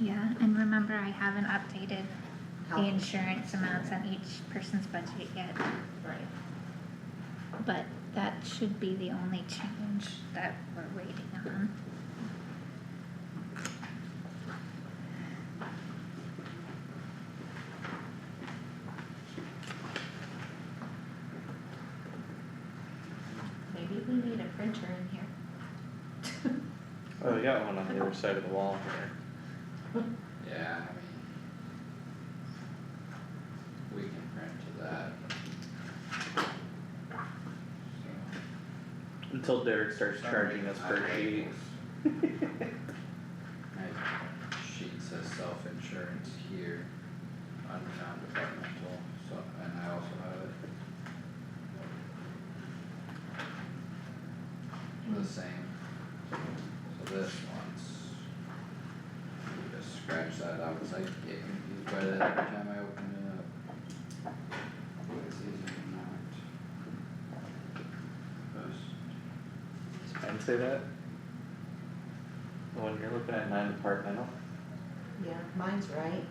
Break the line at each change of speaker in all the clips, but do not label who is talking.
Yeah, and remember I haven't updated the
Health.
insurance amounts on each person's budget yet,
Right.
but that should be the only change that we're waiting on.
Maybe we need a printer in here.
Oh, we got one on the other side of the wall here.
Yeah, I mean. We can print to that. So,
Until Derek starts
some
charging
reason
us
my
per sheet.
labels- My sheet says self-insurance here, under non-departmental, so, and I also have it. The same, so this one's. you Just scratch that out, it's like, get confused by that every time I open it up. This is not. This.
Does mine say that? The one you're looking at, non-departmental?
Yeah, mine's right.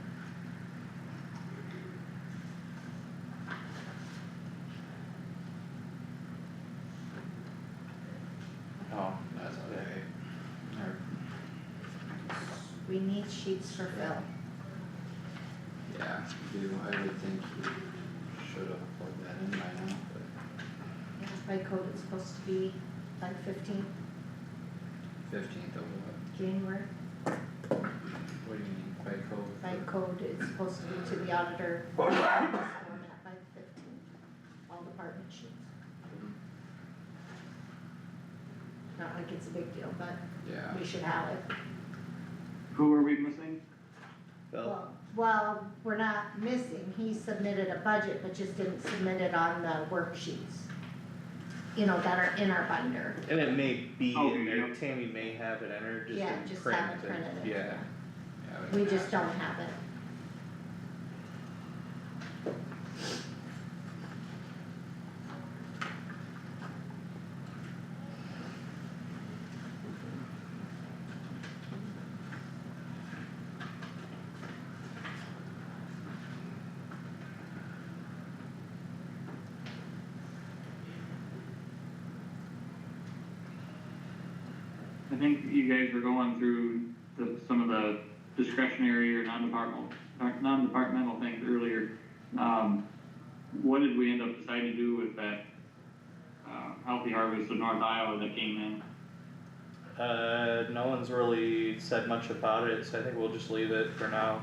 Oh,
That's okay. Or-
We need sheets for Phil.
Yeah, you, I would think you should have plugged that in by now, but
Yeah, By code, it's supposed to be like fifteenth
fifteenth of what?
January.
What do you mean by code?
By code, it's supposed to be to the auditor. Format By the fifteenth, all department sheets. Not like it's a big deal, but
Yeah,
we should have it.
Who are we missing?
well,
Well, well, we're not missing, he submitted a budget, but just didn't submit it on the worksheets. You know, that are in our binder,
and it may be in
Okay,
there,
yep.
Tammy may have it entered just
Yeah,
in
just
print,
have it
and-
printed in.
yeah,
yeah, we
we
can
just
ask.
don't have it.
I think you guys were going through the, some of the discretionary or non-departmental, or non-departmental things earlier. Um, what did we end up deciding to do with that, uh, healthy harvest of North Iowa that came in?
Uh, no one's really said much about it, so I think we'll just leave it for now.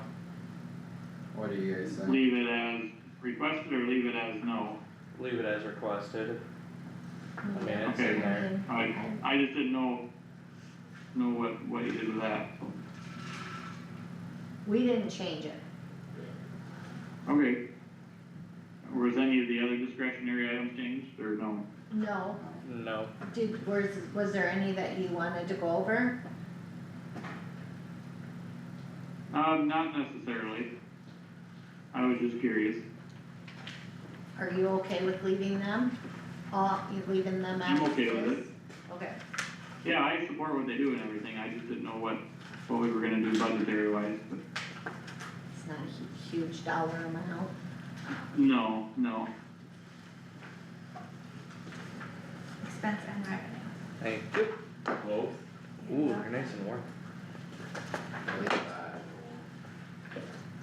What do you guys think?
Leave it as requested or leave it as no?
Leave it as requested. I mean, it's
Okay.
in there.
I, I just didn't know, know what, what you did with that, so.
We didn't change it,
Okay. Was any of the other discretionary items changed or no?
no,
No,
did, was, was there any that you wanted to go over?
Um, not necessarily. I was just curious.
Are you okay with leaving them? All, you leaving them out?
I'm okay with it.
Okay,
Yeah, I support what they do and everything, I just didn't know what, what we were gonna do budgetary wise, but,
it's not a hu- huge dollar amount,
no, no.
Expense and revenue.
thank you. Whoa. Ooh, you're nice and warm.
Leave that.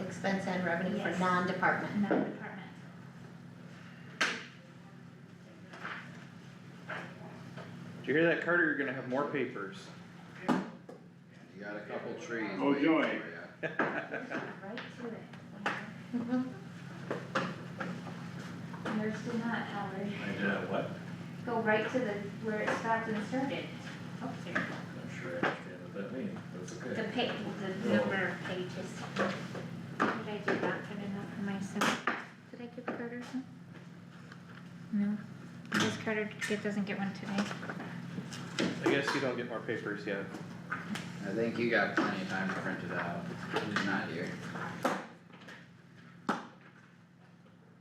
expense and revenue for
Yes.
non-department,
Non-departmental.
Did you hear that, Carter? You're gonna have more papers.
You got a couple trees
Oh,
waiting
joy.
for ya.
right to it.
Yours did not, Howard.
I did a what?
Go right to the, where it stopped and started. Oh, there.
I'm not sure I understand what that means, that's
The
okay.
pa- the number of pages. Did I do that good enough for myself? Did I give Carter some? No, because Carter get- doesn't get one today.
I guess you don't get more papers yet.
I think you got plenty of time to print it out, he's not here.